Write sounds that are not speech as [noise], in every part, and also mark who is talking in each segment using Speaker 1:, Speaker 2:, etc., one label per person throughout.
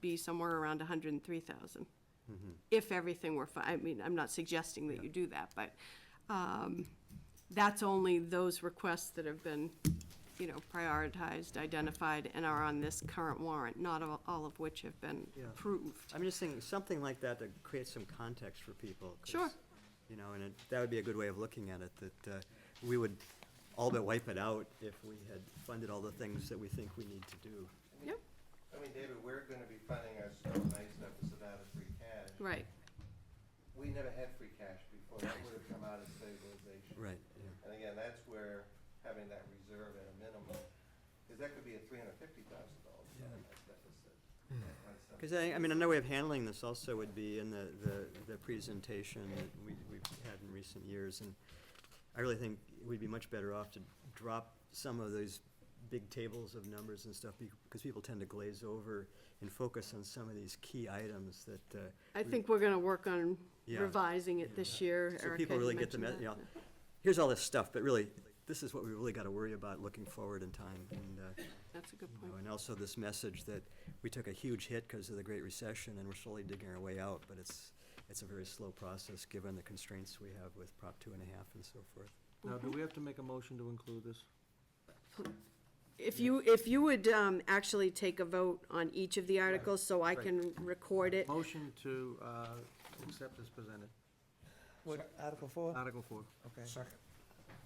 Speaker 1: be somewhere around hundred and three thousand.
Speaker 2: Mm-hmm.
Speaker 1: If everything were, fi- I mean, I'm not suggesting that you do that, but, um, that's only those requests that have been, you know, prioritized, identified, and are on this current warrant, not all, all of which have been
Speaker 2: Yeah.
Speaker 1: approved.
Speaker 2: I'm just thinking something like that to create some context for people. 'cause,
Speaker 1: Sure.
Speaker 2: You know, and it, that would be a good way of looking at it, that uh, we would all but wipe it out if we had funded all the things that we think we need to do.
Speaker 1: Yep,
Speaker 3: I mean, David, we're gonna be funding our snow and ice deficit out of free cash.
Speaker 1: right,
Speaker 3: We never had free cash before, that would've come out of stabilization.
Speaker 2: Right, yeah.
Speaker 3: And again, that's where having that reserve at a minimum, cause that could be a three hundred fifty thousand dollar snow and ice deficit. That kind of stuff.
Speaker 2: Because Hmm. I, I mean, another way of handling this also would be in the, the, the presentation that we, we've had in recent years, and I really think we'd be much better off to drop some of those big tables of numbers and stuff, because people tend to glaze over and focus on some of these key items that, uh,
Speaker 1: I
Speaker 2: we-
Speaker 1: think we're gonna work on
Speaker 2: Yeah.
Speaker 1: revising it this year.
Speaker 2: So
Speaker 1: Erica
Speaker 2: people
Speaker 1: had
Speaker 2: really get the, me-
Speaker 1: mentioned
Speaker 2: you know,
Speaker 1: that.
Speaker 2: here's all this stuff, but really, this is what we really gotta worry about looking forward in time, and, uh,
Speaker 1: That's a good
Speaker 2: you know,
Speaker 1: point.
Speaker 2: And also this message that we took a huge hit because of the Great Recession and we're slowly digging our way out, but it's, it's a very slow process, given the constraints we have with Prop two and a half and so forth.
Speaker 4: Now, do we have to make a motion to include this?
Speaker 1: If you, if you would um, actually take a vote on each of the articles, so I
Speaker 4: right.
Speaker 1: can record it.
Speaker 4: Motion to uh, accept as presented,
Speaker 5: What, Article four?
Speaker 4: Article four.
Speaker 5: Okay.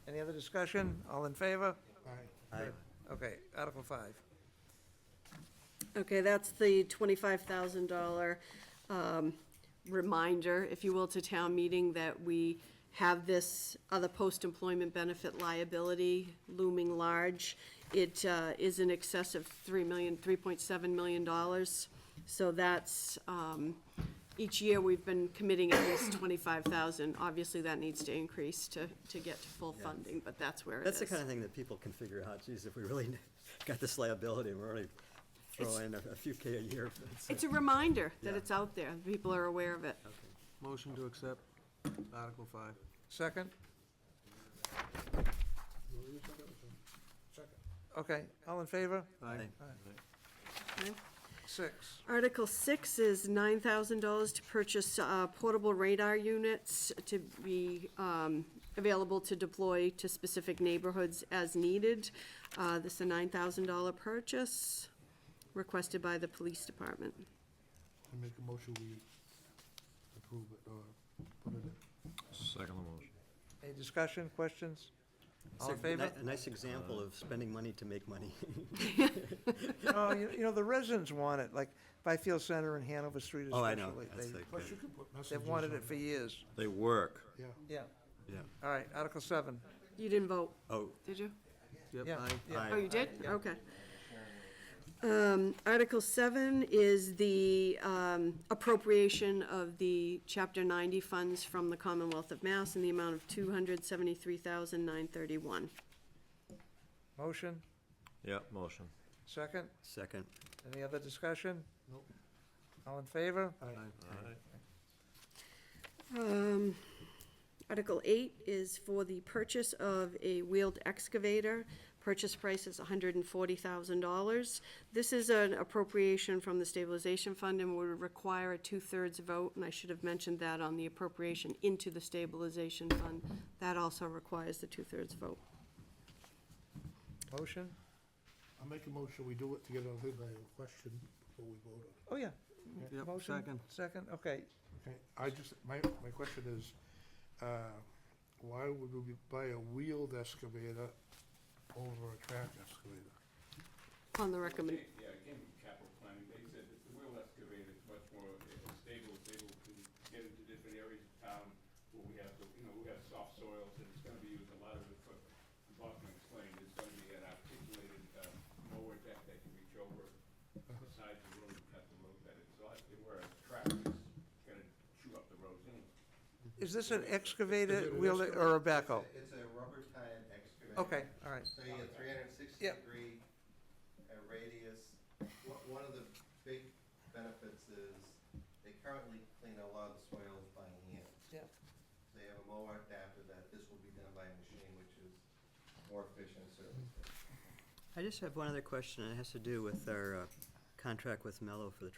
Speaker 5: Any other discussion? All in favor?
Speaker 2: I-
Speaker 5: Okay, Article five.
Speaker 1: Okay, that's the twenty-five thousand dollar um, reminder, if you will, to town meeting that we have this other post-employment benefit liability looming large. It uh, is in excess of three million, three point seven million dollars. So that's, um, each year we've been committing at least twenty-five thousand. Obviously, that needs to increase to, to get to full
Speaker 2: Yeah.
Speaker 1: funding, but that's where it is.
Speaker 2: That's the kind of thing that people can figure out, geez, if we really got this liability, and we're already
Speaker 1: It's-
Speaker 2: throwing a a few K a year. it's, uh,
Speaker 1: It's a reminder that
Speaker 2: Yeah.
Speaker 1: it's out there, people are aware of it.
Speaker 4: Motion to accept Article five.
Speaker 5: Second? Okay, all in favor?
Speaker 4: Aye.
Speaker 1: Okay?
Speaker 5: Six.
Speaker 1: Article six is nine thousand dollars to purchase uh, portable radar units to be um, available to deploy to specific neighborhoods as needed. Uh, This is a nine thousand dollar purchase requested by the police department.
Speaker 6: I make a motion, we approve it or put it in.
Speaker 7: Second motion.
Speaker 5: Any discussion, questions? All in
Speaker 2: so,
Speaker 5: favor?
Speaker 2: [laughs] ni- A nice example of spending money to make money. [laughs]
Speaker 5: Oh, you you know, the residents want it, like Byfield Center and Hanover Street
Speaker 2: Oh, I know,
Speaker 5: especially.
Speaker 2: that's
Speaker 5: They-
Speaker 2: the,
Speaker 6: Plus, you could put messages
Speaker 5: They've
Speaker 6: on
Speaker 5: wanted it for years.
Speaker 7: They work.
Speaker 6: Yeah,
Speaker 5: Yeah.
Speaker 2: yeah,
Speaker 5: All right, Article seven.
Speaker 1: You didn't vote,
Speaker 2: oh,
Speaker 1: did you?
Speaker 4: Yep,
Speaker 5: Yeah,
Speaker 4: aye.
Speaker 5: yeah.
Speaker 1: Oh,
Speaker 2: I,
Speaker 1: you did? Okay. Um, Article seven is the, um, appropriation of the chapter ninety funds from the Commonwealth of Mass in the amount of two hundred seventy-three thousand nine thirty-one.
Speaker 5: Motion,
Speaker 7: Yeah, motion.
Speaker 5: second.
Speaker 2: second,
Speaker 5: Any other discussion?
Speaker 6: Nope.
Speaker 5: All in favor?
Speaker 1: Um, Article eight is for the purchase of a wheeled excavator. Purchase price is hundred and forty thousand dollars. This is an appropriation from the stabilization fund and would require a two-thirds vote, and I should have mentioned that on the appropriation into the stabilization fund. That also requires the two-thirds vote.
Speaker 5: Motion?
Speaker 6: I make a motion, we do it to get it on the question before we vote on it.
Speaker 5: Oh, yeah.
Speaker 4: Yep,
Speaker 5: Motion,
Speaker 4: second.
Speaker 5: Second, okay.
Speaker 6: Okay, I just, my, my question is, uh, why would we buy a wheeled excavator over a track excavator?
Speaker 1: On the recommend,
Speaker 8: Yeah, it came from capital planning, they said that the wheel excavator is much more uh, stable, it's able to get into different areas of town where we have, the- you know, we have soft soils, and it's gonna be used a lot of the, foot- Boston explained, it's gonna be an articulated, uh, mower deck that can reach over the sides of the road and cut the road better, so I think where a tractor is gonna chew up the roads anyway.
Speaker 5: Is this an excavator wheel or a backhoe?
Speaker 3: It's a rubber tie excavator.
Speaker 5: Okay, all right.
Speaker 3: So you get three hundred and sixty
Speaker 5: Yep.
Speaker 3: degree uh, radius. One, one of the big benefits is they currently clean a lot of the soils by hand.
Speaker 5: Yep.
Speaker 3: They have a mower adapter that this will be done by a machine, which is more efficient certainly.
Speaker 2: I just have one other question, and it has to do with our, uh, contract with Mello for the